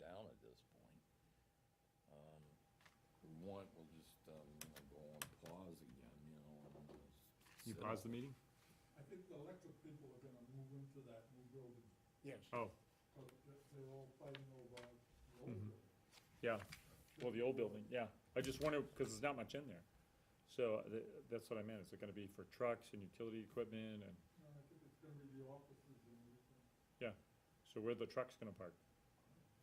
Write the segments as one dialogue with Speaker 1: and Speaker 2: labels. Speaker 1: Um, want, we'll just, um, you know, go on pause again, you know, and just.
Speaker 2: You
Speaker 1: sit
Speaker 2: pause
Speaker 1: up.
Speaker 2: the meeting?
Speaker 3: I think the electric people are gonna move into that new building,
Speaker 4: Yes.
Speaker 2: Oh,
Speaker 3: because they're all fighting over the old
Speaker 2: Mhm.
Speaker 3: building.
Speaker 2: yeah, well, the old building, yeah, I just wonder, because there's not much in there. So, uh, th- that's what I meant, is it gonna be for trucks and utility equipment, and,
Speaker 3: No, I think it's gonna be the offices and everything.
Speaker 2: so where are the trucks gonna park?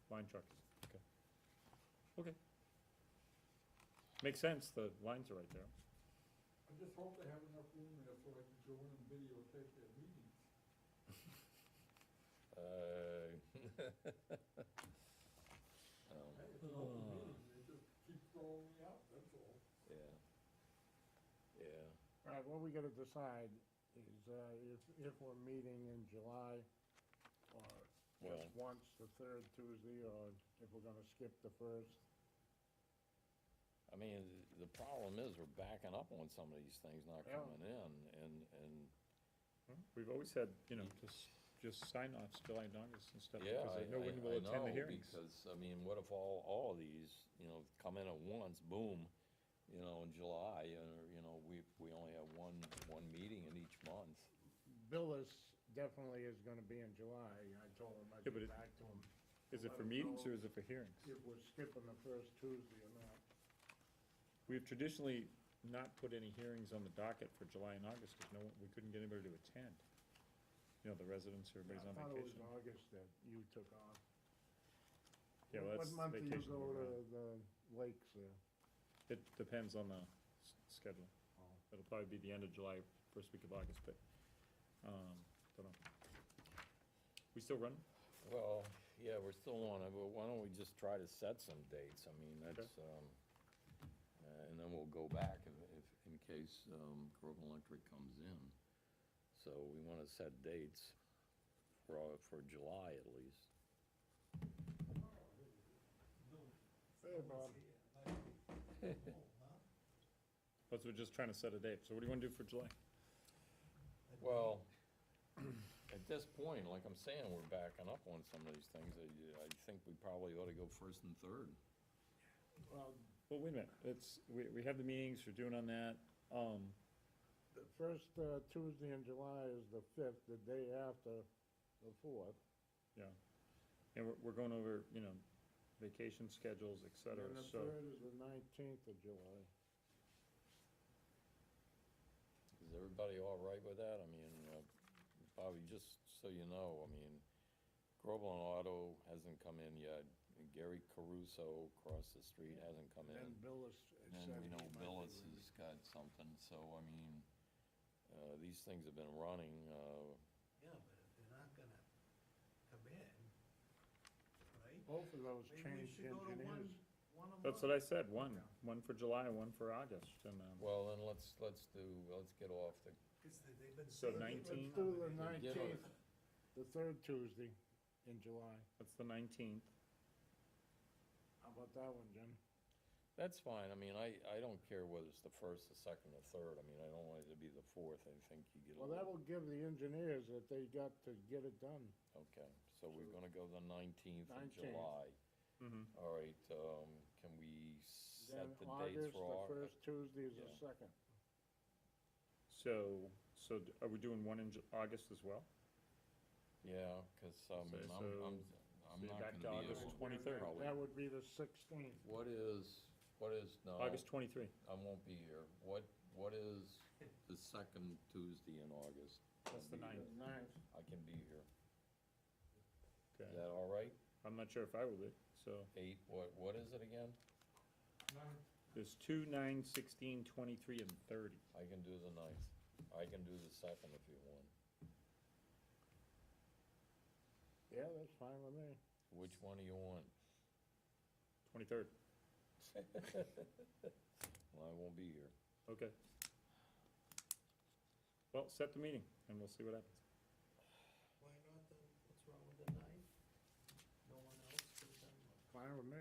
Speaker 2: Line trucks, okay. Okay. Makes sense, the lines are right there.
Speaker 3: I just hope they have enough room there so I can go in and videotape their meetings.
Speaker 1: Uh,
Speaker 3: Hey,
Speaker 1: um,
Speaker 3: it's an open
Speaker 2: Oh.
Speaker 3: meeting, they just keep throwing me out, that's all.
Speaker 1: Yeah. Yeah.
Speaker 4: All right, what we gotta decide is, uh, if, if we're meeting in July, or
Speaker 1: Well-
Speaker 4: just once, the third Tuesday, or if we're gonna skip the first.
Speaker 1: I mean, th- the problem is we're backing up on some of these things not
Speaker 4: Yeah.
Speaker 1: coming in and, and,
Speaker 2: We've always had, you know, just, just sign offs, July and August and stuff,
Speaker 1: yeah,
Speaker 2: because
Speaker 1: I,
Speaker 2: no
Speaker 1: I,
Speaker 2: one will
Speaker 1: I
Speaker 2: attend the
Speaker 1: know,
Speaker 2: hearings.
Speaker 1: because, I mean, what if all, all of these, you know, come in at once, boom, you know, in July, and, you know, we, we only have one, one meeting in each month.
Speaker 4: Billis definitely is gonna be in July, I told him I'd
Speaker 2: Yeah, but
Speaker 4: get
Speaker 2: it-
Speaker 4: back to him,
Speaker 2: Is it for meetings or is it for hearings?
Speaker 4: if we're skipping the first Tuesday or not.
Speaker 2: We've traditionally not put any hearings on the docket for July and August, because no, one- we couldn't get anybody to attend. You know, the residents, everybody's
Speaker 4: I
Speaker 2: on
Speaker 4: thought it was
Speaker 2: vacation.
Speaker 4: August that you took off.
Speaker 2: Yeah, well,
Speaker 4: What-
Speaker 2: that's
Speaker 4: What month do you
Speaker 2: vacation
Speaker 4: go
Speaker 2: we're on.
Speaker 4: to the lakes there?
Speaker 2: It depends on the s- schedule.
Speaker 4: Oh.
Speaker 2: It'll probably be the end of July, first week of August, but, um, don't know. We still run?
Speaker 1: Well, yeah, we're still on it, but why don't we just try to set some dates? I mean, that's, um, uh, and then we'll go back if, if, in case, um, Groveland Electric comes in. So we wanna set dates for, all- for July at least.
Speaker 4: Hey, Bob.
Speaker 2: Plus, we're just trying to set a date. So what do you wanna do for July?
Speaker 1: Well, at this point, like I'm saying, we're backing up on some of these things. I, I think we probably ought to go first and third.
Speaker 4: Well,
Speaker 2: Well, wait a minute, it's, we, we have the meetings, we're doing on that, um,
Speaker 4: the first uh, Tuesday in July is the fifth, the day after the fourth.
Speaker 2: yeah. And we're, we're going over, you know, vacation schedules, et
Speaker 4: And
Speaker 2: cetera,
Speaker 4: the
Speaker 2: so.
Speaker 4: third is the nineteenth of July.
Speaker 1: Is everybody all right with that? I mean, uh, Bobby, just so you know, I mean, Groveland Auto hasn't come in yet. Gary Caruso across the street hasn't come in.
Speaker 4: And Billis
Speaker 1: And then
Speaker 4: said
Speaker 1: we
Speaker 4: he
Speaker 1: know
Speaker 4: might be
Speaker 1: Billis
Speaker 4: ready.
Speaker 1: has got something, so I mean, uh, these things have been running, uh,
Speaker 5: Yeah, but if they're not gonna come in, right?
Speaker 4: Both of those
Speaker 5: Maybe we
Speaker 4: changed
Speaker 5: should go to
Speaker 4: engineers.
Speaker 5: one, one a month.
Speaker 2: That's what I said, one, one for July, one for August, and, um,
Speaker 1: well, then let's, let's do, let's get off the,
Speaker 5: 'Cause they- they've been
Speaker 2: So
Speaker 5: saying
Speaker 2: 19?
Speaker 4: Let's
Speaker 5: they've been
Speaker 4: do the
Speaker 5: coming in.
Speaker 1: Yeah.
Speaker 4: nineteenth, the third Tuesday in July.
Speaker 2: that's the nineteenth.
Speaker 4: How about that one, Jim?
Speaker 1: that's fine. I mean, I, I don't care whether it's the first, the second, the third. I mean, I don't want it to be the fourth. I think you get a
Speaker 4: Well,
Speaker 1: little.
Speaker 4: that will give the engineers that they got to get it done.
Speaker 1: Okay, so we're gonna go the nineteenth of
Speaker 4: 19th.
Speaker 1: July.
Speaker 2: Mhm.
Speaker 1: All right, um, can we set
Speaker 4: Then
Speaker 1: the dates
Speaker 4: August,
Speaker 1: for
Speaker 4: the
Speaker 1: August?
Speaker 4: first Tuesday is
Speaker 1: Yeah.
Speaker 4: the second.
Speaker 2: So, so d- are we doing one in Ju- August as well?
Speaker 1: Yeah, cause, um,
Speaker 2: Okay,
Speaker 1: I'm, I'm,
Speaker 2: so-
Speaker 1: I'm
Speaker 2: so
Speaker 1: not
Speaker 2: back
Speaker 1: gonna be
Speaker 2: to August
Speaker 1: able.
Speaker 2: 23rd.
Speaker 1: probably-
Speaker 4: That would be the sixteenth.
Speaker 1: What is, what is, no,
Speaker 2: August twenty-three,
Speaker 1: I won't be here. What, what is the second Tuesday in August?
Speaker 2: that's the ninth,
Speaker 4: Ninth.
Speaker 1: I can be here. Is
Speaker 2: okay.
Speaker 1: that all right?
Speaker 2: I'm not sure if I will be, so,
Speaker 1: Eight, what, what is it again?
Speaker 3: Nine
Speaker 2: there's two, nine, sixteen, twenty-three, and thirty.
Speaker 1: I can do the ninth. I can do the second if you want.
Speaker 4: Yeah, that's fine with me.
Speaker 1: Which one do you want?
Speaker 2: Twenty-third,
Speaker 1: Well, I won't be here.
Speaker 2: okay. Well, set the meeting, and we'll see what happens.
Speaker 5: Why not the, what's wrong with the ninth? No one else could have done one.
Speaker 4: Fine with me.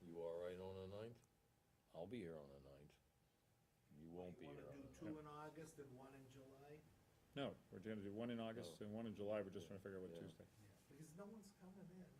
Speaker 1: You all right on the ninth? I'll be here on the ninth. You won't be uh,
Speaker 5: You
Speaker 1: here on
Speaker 5: wanna do
Speaker 1: the ninth.
Speaker 5: two in August and one in July?
Speaker 2: No, we're gonna do one in August
Speaker 1: No.
Speaker 2: and one in July, we're just
Speaker 1: Yeah,
Speaker 2: trying to figure out what
Speaker 1: yeah.
Speaker 2: Tuesday.
Speaker 5: Because no one's coming in.